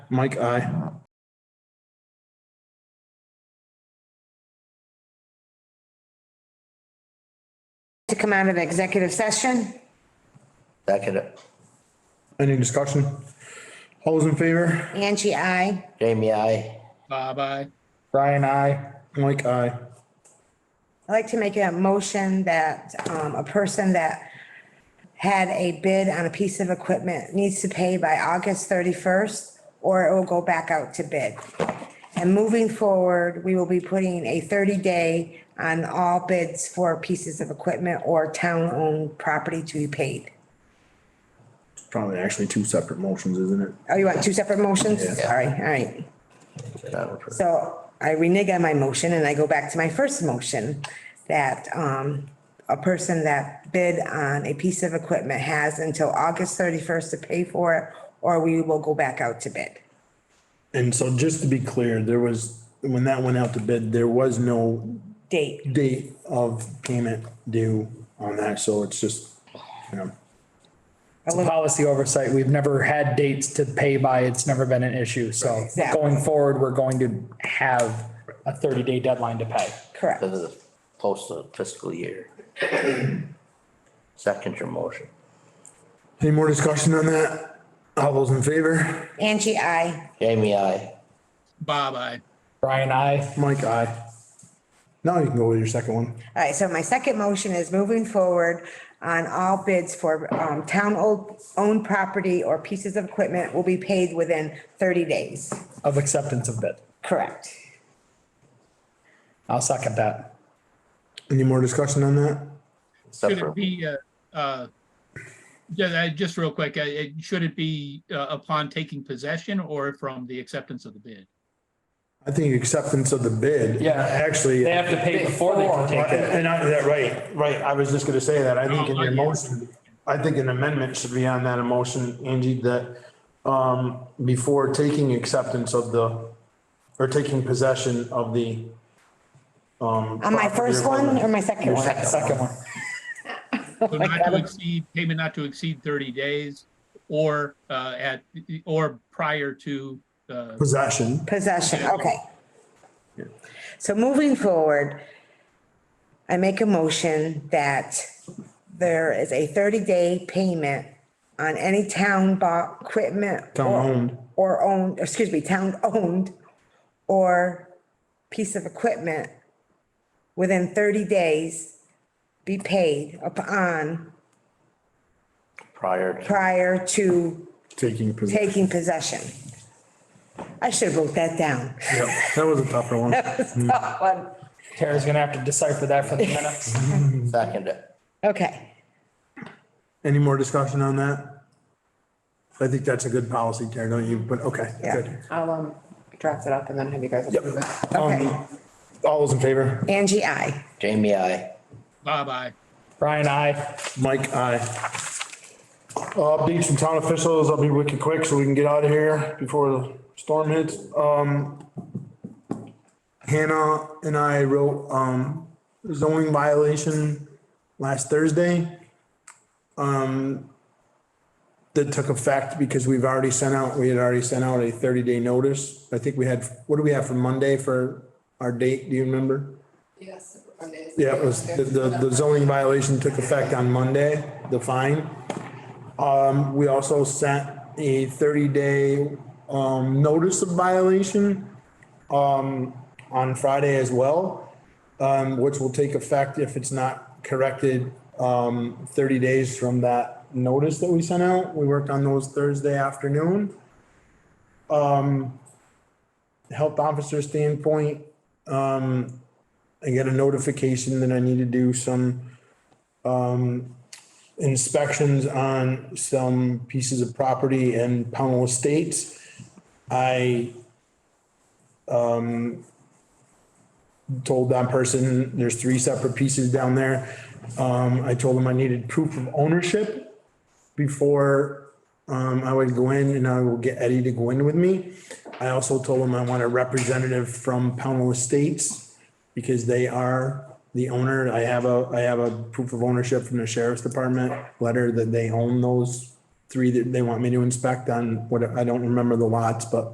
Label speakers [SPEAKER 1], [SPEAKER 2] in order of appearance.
[SPEAKER 1] Mike, aye.
[SPEAKER 2] to come out of executive session.
[SPEAKER 3] Second,
[SPEAKER 1] Any discussion? All those in favor?
[SPEAKER 2] Angie, I.
[SPEAKER 3] Jamie, I,
[SPEAKER 4] Bye-bye.
[SPEAKER 1] Brian, aye. Mike, aye.
[SPEAKER 2] I'd like to make a motion that um, a person that had a bid on a piece of equipment needs to pay by August 31st, or it will go back out to bid. And moving forward, we will be putting a 30-day on all bids for pieces of equipment or town-owned property to be paid.
[SPEAKER 1] Probably actually two separate motions, isn't it?
[SPEAKER 2] Oh, you want two separate motions? Sorry, all right. So I renege on my motion and I go back to my first motion that um, a person that bid on a piece of equipment has until August thirty-first to pay for it, or we will go back out to bid.
[SPEAKER 1] And so just to be clear, there was, when that went out to bid, there was no
[SPEAKER 2] Date,
[SPEAKER 1] date of payment due on that, so it's just, you know.
[SPEAKER 2] a
[SPEAKER 5] It's a
[SPEAKER 2] little,
[SPEAKER 5] policy oversight. We've never had dates to pay by. It's never been an issue. So
[SPEAKER 2] Exactly.
[SPEAKER 5] going forward, we're going to have a thirty day deadline to pay.
[SPEAKER 2] correct.
[SPEAKER 3] because of the postal fiscal year. Second your motion.
[SPEAKER 1] Any more discussion on that? All those in favor?
[SPEAKER 2] Angie, I,
[SPEAKER 3] Jamie, I,
[SPEAKER 4] Bye-bye.
[SPEAKER 5] Brian, I,
[SPEAKER 1] Mike, aye. Now you can go with your second one.
[SPEAKER 2] All right, so my second motion is moving forward on all bids for um, town o- owned property or pieces of equipment will be paid within thirty days.
[SPEAKER 5] of acceptance of bid.
[SPEAKER 2] Correct.
[SPEAKER 5] I'll second that.
[SPEAKER 1] Any more discussion on that?
[SPEAKER 3] except
[SPEAKER 4] Should it
[SPEAKER 3] for,
[SPEAKER 4] be, uh, uh, just, I- just real quick, uh, it- should it be uh, upon taking possession or from the acceptance of the bid?
[SPEAKER 1] I think acceptance of the bid.
[SPEAKER 5] Yeah.
[SPEAKER 1] Actually.
[SPEAKER 5] They have to pay before they can take it.
[SPEAKER 1] And I, that, right, right, I was just gonna say that, I think in
[SPEAKER 4] Oh,
[SPEAKER 1] your
[SPEAKER 4] yeah.
[SPEAKER 1] motion, I think an amendment should be on that emotion, Angie, that, um, before taking acceptance of the, or taking possession of the, um.
[SPEAKER 2] On my first one or my second one?
[SPEAKER 5] Second one.
[SPEAKER 4] So Not to exceed, payment not to exceed 30 days or uh, at, or prior to, uh,
[SPEAKER 1] Possession,
[SPEAKER 2] Possession, okay. So moving forward, I make a motion that there is a thirty-day payment on any town bought equipment.
[SPEAKER 1] Town
[SPEAKER 2] or-
[SPEAKER 1] owned.
[SPEAKER 2] Or owned, excuse me, town owned or piece of equipment within thirty days be paid upon
[SPEAKER 3] prior to
[SPEAKER 2] prior to
[SPEAKER 1] taking possession.
[SPEAKER 2] taking possession. I should have wrote that down.
[SPEAKER 1] Yep, That was a tougher one.
[SPEAKER 5] Tara's gonna have to decipher that for the minutes.
[SPEAKER 3] second, it.
[SPEAKER 2] Okay.
[SPEAKER 1] Any more discussion on that? I think that's a good policy, Karen, don't you? But, okay,
[SPEAKER 2] Yeah,
[SPEAKER 1] good.
[SPEAKER 2] I'll um draft it up and then have you guys approve it. Okay,
[SPEAKER 1] Um, All those in favor?
[SPEAKER 2] Angie, I.
[SPEAKER 3] Jamie, I,
[SPEAKER 4] bye-bye.
[SPEAKER 5] Brian, I,
[SPEAKER 1] Mike, aye. Uh, Updates from town officials, I'll be wicked quick so we can get out of here before the storm hits. Um, Hannah and I wrote, um, zoning violation last Thursday. Um, that took effect because we've already sent out, we had already sent out a thirty day notice. I think we had, what do we have for Monday for our date? Do you remember?
[SPEAKER 6] Yes, Monday is-
[SPEAKER 1] Yeah, it was, the, the the zoning violation took effect on Monday, the fine. Um, we also sent a thirty-day, um, notice of violation, um, on Friday as well, um, which will take effect if it's not corrected, um, thirty days from that notice that we sent out. We worked on those Thursday afternoon. Um, health officer standpoint, I get a notification that I need to do some um inspections on some pieces of property in Pownell Estates. I um told that person, there's three separate pieces down there. Um, I told them I needed proof of ownership before um, I would go in and I will get Eddie to go in with me. I also told him I want a representative from Pownell Estates because they are the owner. I have a, I have a proof of ownership from the sheriff's department letter that they own those three that they want me to inspect on what, I don't remember the lots, but